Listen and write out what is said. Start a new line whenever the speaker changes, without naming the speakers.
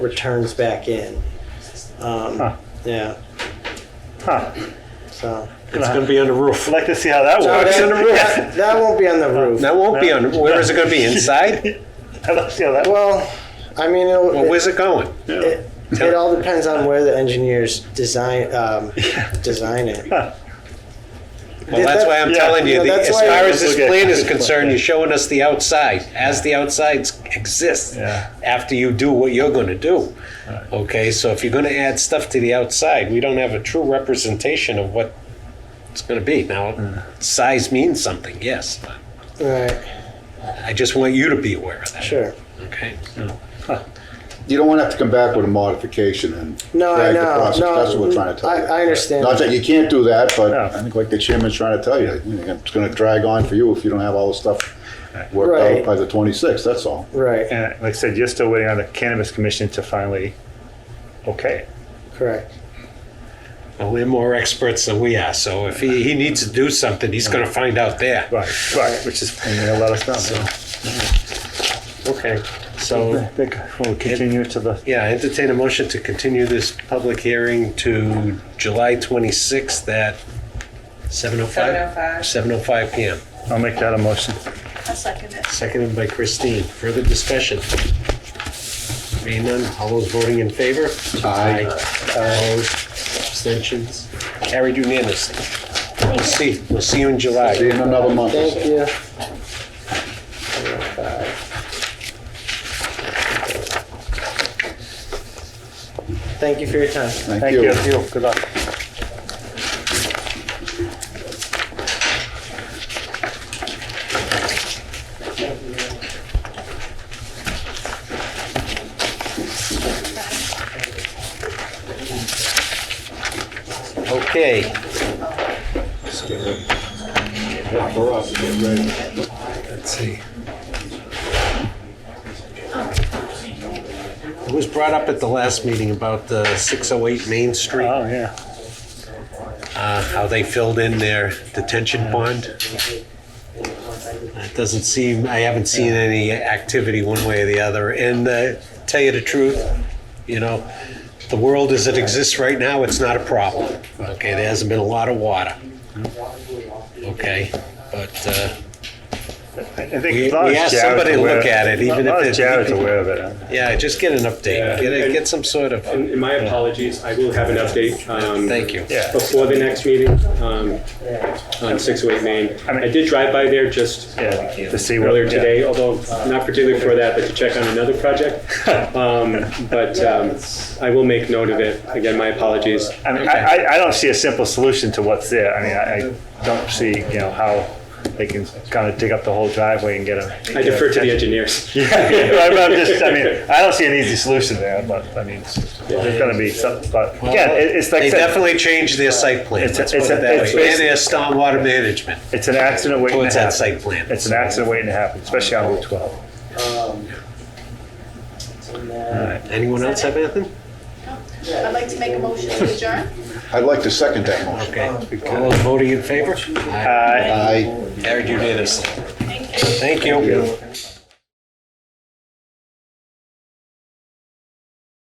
returns back in.
Huh.
Um, yeah,
Huh.
so.
It's going to be on the roof.
I'd like to see how that
No,
works.
on the roof.
That, that won't be on the roof.
That won't be on. Where is it going to be? Inside?
I'd like to see how that works.
Well, I mean, it'll-
Well,
it,
where's it going?
it, it all depends on where the engineers design, um, design it.
Huh.
Well, that's why I'm
Yeah.
telling you.
Yeah,
the-
that's
as
why-
far as this
Okay.
plan is concerned, you're showing us the outside as the outsides exist
Yeah.
after you do what you're going to do. Okay, so if you're going to add stuff to the outside, we don't have a true representation of what it's going to be. Now, size means something, yes. but
Right,
I just want you to be aware of that.
sure.
Okay.
You don't want to have to come back with a modification and
No, I
drag the
know.
process.
No,
That's what we're trying to tell
I-
you.
I understand
Not that you can't do that, but
No.
I think like the chairman's trying to tell you, you know, it's going to drag on for you if you don't have all the stuff worked
Right.
out by the 26th. That's all.
Right,
And like I said, you're still waiting on the Cannabis Commission to finally okay.
correct.
Well, they're more experts than we are, so if he, he needs to do something, he's going to find out there.
Right, right, which is I mean, a lot of stuff. So,
Okay,
I
so,
think we'll continue to the.
yeah, entertain a motion to continue this public hearing to July 26th at 7:05?
705.
7:05 PM.
I'll make that a motion.
I'll second it.
Seconded by Christine. Further discussion? Being none, all those voting in favor?
Aye.
Opposed? Abstentions? Carried unanimously. We'll see, we'll see you in July.
See you in another month. or so.
Thank you. Thank you for your time.
Thank,
Thank
you.
you. Good luck.
Okay.
For us, get ready.
Let's see. It was brought up at the last meeting about uh, the 608 Main Street,
Uh-huh.
Oh, yeah.
uh, how they filled in their detention pond. It doesn't seem, I haven't seen any activity one way or the other. And uh, tell you the truth, you know, the world as it exists right now, it's not a problem. Okay, there hasn't been a lot of water.
Mm-hmm.
Okay, but uh,
I think
We-
a lot
we
of
asked
Jared's
somebody to
aware-
look at it, even
a lot of
if it-
Jared's aware of it.
yeah, just get an update.
Yeah.
Get, a, get some sort of.
And my apologies, I will have an update. um,
Thank you.
Yeah.
Before the next meeting, um, on 608 Main.
I mean-
I did drive by there just
Yeah, to see what-
earlier
yeah.
today, although not particularly for that, but to check on another project. Um, But um, I will make note of it. Again, my apologies.
I mean, I, I, I don't see a simple solution to what's there. I mean, I, I don't see, you know, how they can kind of dig up the whole driveway and get a.
I defer to the engineers.
Yeah, I'm, I'm just, I mean, I don't see an easy solution there, but I mean, it's- there's going to be some, but again, it- it's like, I
they
said,
definitely changed their site plan.
It's a-
Let's put
it's
it
a-
that
it's
way. And
basi-
their stormwater management.
it's an accident waiting
Towards
to
that
happen.
site plan.
It's an accident waiting to happen, especially on Route 12.
Anyone else have anything?
I'd like to make a motion to adjourn.
I'd like to second that motion.
Okay. All those voting in favor?
Uh,
Aye.
Carried unanimously.
Thank you.
Thank you.